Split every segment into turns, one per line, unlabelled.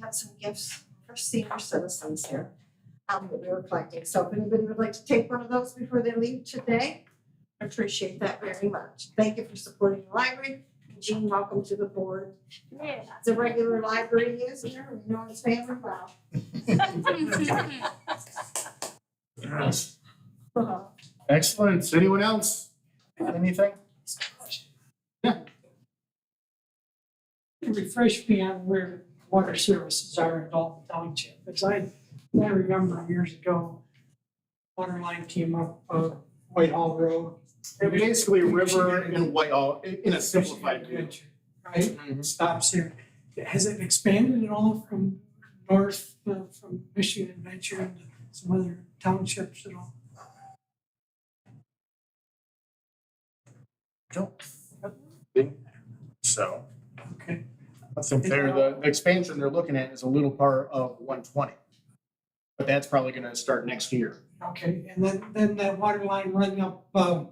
got some gifts for senior citizens here um, that we were collecting. So if anybody would like to take one of those before they leave today, I appreciate that very much. Thank you for supporting the library. Jean, welcome to the board.
Yeah.
It's a regular library user, we know it's family well.
Yes.
Uh-huh.
Excellent. Anyone else? Got Anything?
refresh me on where water services are in Dalton Township, because I, I remember years ago, water line came up, uh, Whitehall Road.
And Basically, River and Whitehall, in in a simplified view. Mm-hmm.
Right, stops here. Has it expanded at all from north, uh, from Michigan Adventure into some other townships at all?
Don't think So,
Okay,
I think they're, the the expansion they're looking at is a little part of one twenty. But that's probably gonna start next year.
okay, and then, then that water line running up, um,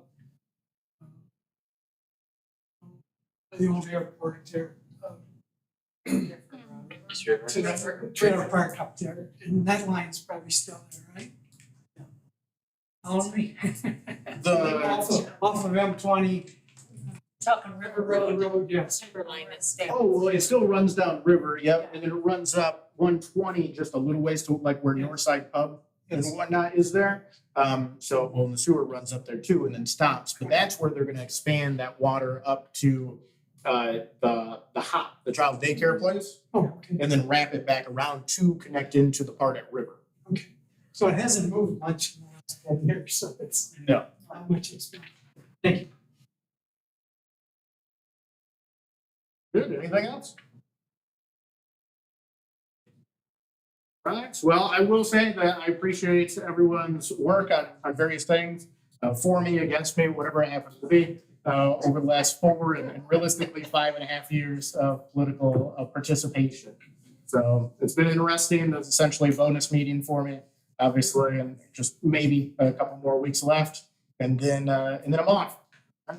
uh, the old airport there, um, to the trailer park up there, and that line's probably still there, right? Only.
Uh,
Off
The,
of, off of M twenty.
Talking River Road,
Road, yes.
Timberline that's down.
oh, well, it still runs down River, yep, and then it runs up one twenty just a little ways to like where Northside Pub and whatnot is there. Um, so, well, and the sewer runs up there too and then stops, but that's where they're gonna expand that water up to uh, the, the hop, the child daycare place,
Oh, okay,
and then wrap it back around to connect into the part at River.
okay. So it hasn't moved much in the last ten years, so it's
No.
not much expansion.
Good, anything else? Right, well, I will say that I appreciate everyone's work on, on various things, uh, for me, against me, whatever it happens to be, uh, over the last four and and realistically five and a half years of political uh, participation. So it's been interesting, that's essentially a bonus meeting for me, obviously, and just maybe a couple more weeks left. And then, uh, and then I'm off.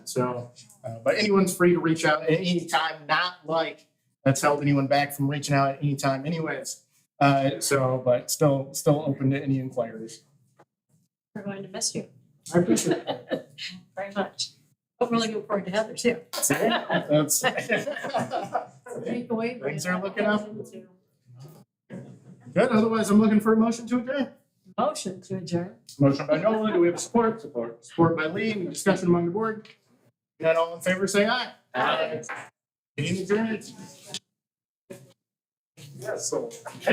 So, uh, but anyone's free to reach out at any time, not like that's held anyone back from reaching out at any time anyways. Uh, so, but still, still open to any inquiries.
We're going to miss you
I appreciate it.
very much. I'm really looking forward to Heather too.
That's.
Take away from
Things
it.
are looking up. Good, otherwise I'm looking for a motion to adjourn.
Motion to adjourn.
Motion by Nolan, do we have a support? Support. Support by Lee, any discussion among the board? Not all in favor, say aye. Aye. Any adjourned? Yes, so.